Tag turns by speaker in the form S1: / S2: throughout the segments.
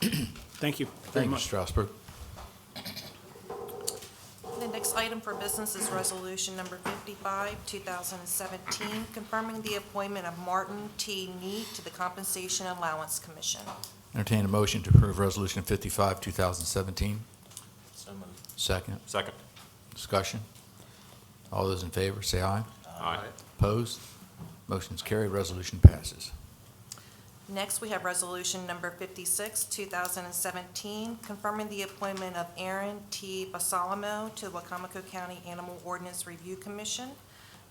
S1: Thank you very
S2: Thank you,
S1: much.
S2: Strasburg.
S3: The next item for business is Resolution Number 55, 2017, confirming the appointment of Martin T. Neat to the Compensation Allowance Commission.
S2: Entertain a motion to approve Resolution 55, 2017.
S4: So moved.
S2: Second,
S4: Second.
S2: discussion. All those in favor, say aye.
S4: Aye.
S2: Opposed? Motion's carried, resolution passes.
S3: Next, we have Resolution Number 56, 2017, confirming the appointment of Aaron T. Basalamo to the Wacomico County Animal Ordinance Review Commission.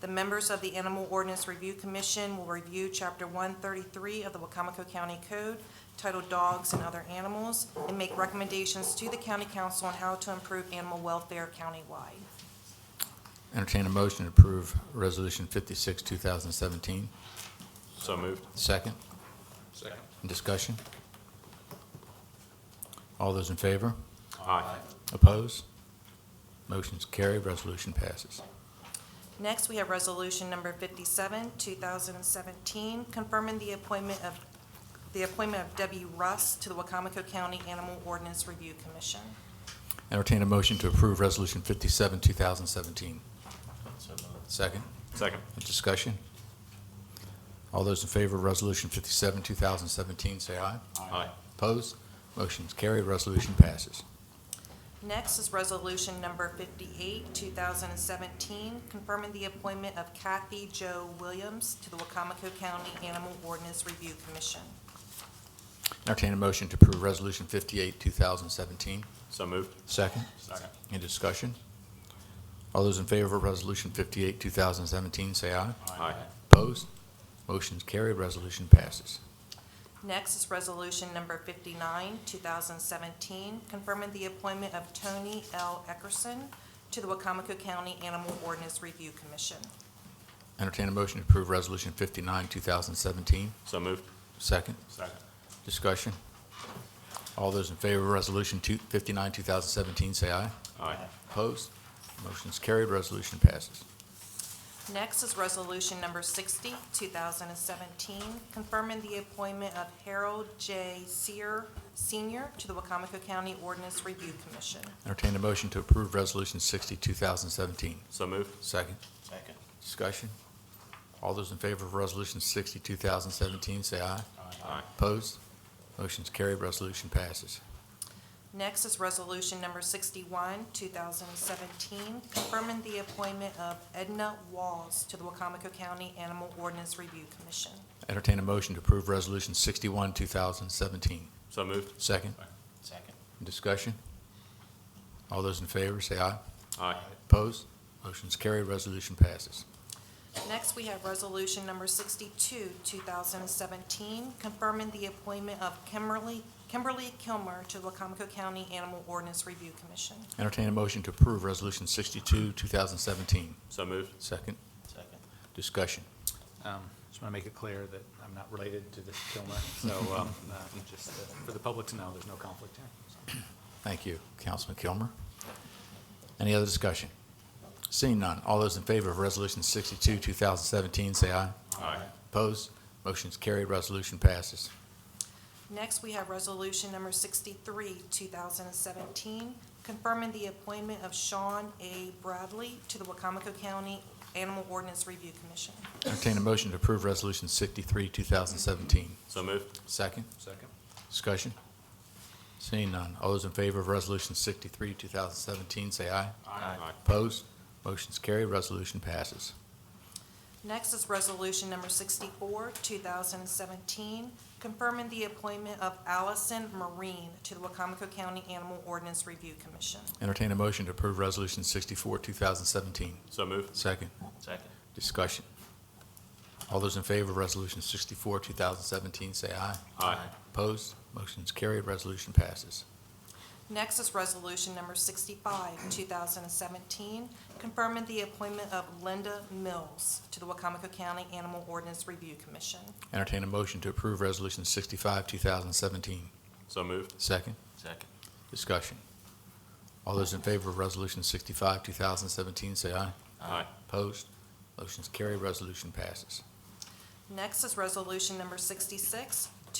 S3: The members of the Animal Ordinance Review Commission will review Chapter 133 of the Wacomico County Code titled Dogs and Other Animals and make recommendations to the county council on how to improve animal welfare countywide.
S2: Entertain a motion to approve Resolution 56, 2017.
S4: So moved.
S2: Second,
S4: Second.
S2: discussion. All those in favor?
S4: Aye.
S2: Opposed? Motion's carried, resolution passes.
S3: Next, we have Resolution Number 57, 2017, confirming the appointment of, the appointment of Debbie Russ to the Wacomico County Animal Ordinance Review Commission.
S2: Entertain a motion to approve Resolution 57, 2017.
S4: So moved.
S2: Second,
S4: Second.
S2: discussion. All those in favor of Resolution 57, 2017, say aye.
S4: Aye.
S2: Opposed? Motion's carried, resolution passes.
S3: Next is Resolution Number 58, 2017, confirming the appointment of Kathy Jo Williams to the Wacomico County Animal Ordinance Review Commission.
S2: Entertain a motion to approve Resolution 58, 2017.
S4: So moved.
S2: Second.
S4: Second.
S2: Any discussion? All those in favor of Resolution 58, 2017, say aye.
S4: Aye.
S2: Opposed? Motion's carried, resolution passes.
S3: Next is Resolution Number 59, 2017, confirming the appointment of Tony L. Eckerson to the Wacomico County Animal Ordinance Review Commission.
S2: Entertain a motion to approve Resolution 59, 2017.
S4: So moved.
S2: Second.
S4: Second.
S2: Discussion. All those in favor of Resolution 2 59, 2017, say aye.
S4: Aye.
S2: Opposed? Motion's carried, resolution passes.
S3: Next is Resolution Number 60, 2017, confirming the appointment of Harold J. Sear Sr. to the Wacomico County Ordinance Review Commission.
S2: Entertain a motion to approve Resolution 60, 2017.
S4: So moved.
S2: Second.
S4: Second.
S2: Discussion. All those in favor of Resolution 60, 2017, say aye.
S4: Aye.
S2: Opposed? Motion's carried, resolution passes.
S3: Next is Resolution Number 61, 2017, confirming the appointment of Edna Walls to the Wacomico County Animal Ordinance Review Commission.
S2: Entertain a motion to approve Resolution 61, 2017.
S4: So moved.
S2: Second.
S4: Second.
S2: Discussion. All those in favor, say aye.
S4: Aye.
S2: Opposed? Motion's carried, resolution passes.
S3: Next, we have Resolution Number 62, 2017, confirming the appointment of Kimberly Kimberly Kilmer to the Wacomico County Animal Ordinance Review Commission.
S2: Entertain a motion to approve Resolution 62, 2017.
S4: So moved.
S2: Second.
S4: Second.
S2: Discussion.
S5: Um, Just want to make it clear that I'm not related to this Kilmer, so um, uh, just uh, for the public to know, there's no conflict here. so.
S2: Thank you, Councilman Kilmer. Any other discussion? Seeing none, all those in favor of Resolution 62, 2017, say aye.
S4: Aye.
S2: Opposed? Motion's carried, resolution passes.
S3: Next, we have Resolution Number 63, 2017, confirming the appointment of Sean A. Bradley to the Wacomico County Animal Ordinance Review Commission.
S2: Entertain a motion to approve Resolution 63, 2017.
S4: So moved.
S2: Second,
S5: Second?
S2: discussion. Seeing none, all those in favor of Resolution 63, 2017, say aye.
S4: Aye.
S2: Opposed? Motion's carried, resolution passes.
S3: Next is Resolution Number 64, 2017, confirming the appointment of Allison Marine to the Wacomico County Animal Ordinance Review Commission.
S2: Entertain a motion to approve Resolution 64, 2017.
S4: So moved.
S2: Second,
S4: Second.
S2: discussion. All those in favor of Resolution 64, 2017, say aye.
S4: Aye.
S2: Opposed? Motion's carried, resolution passes.
S3: Next is Resolution Number 65, 2017, confirming the appointment of Linda Mills to the Wacomico County Animal Ordinance Review Commission.
S2: Entertain a motion to approve Resolution 65, 2017.
S4: So moved.
S2: Second,
S4: Second.
S2: discussion. All those in favor of Resolution 65, 2017, say aye.
S4: Aye.
S2: Opposed? Motion's carried, resolution passes.
S3: Next is Resolution Number 66,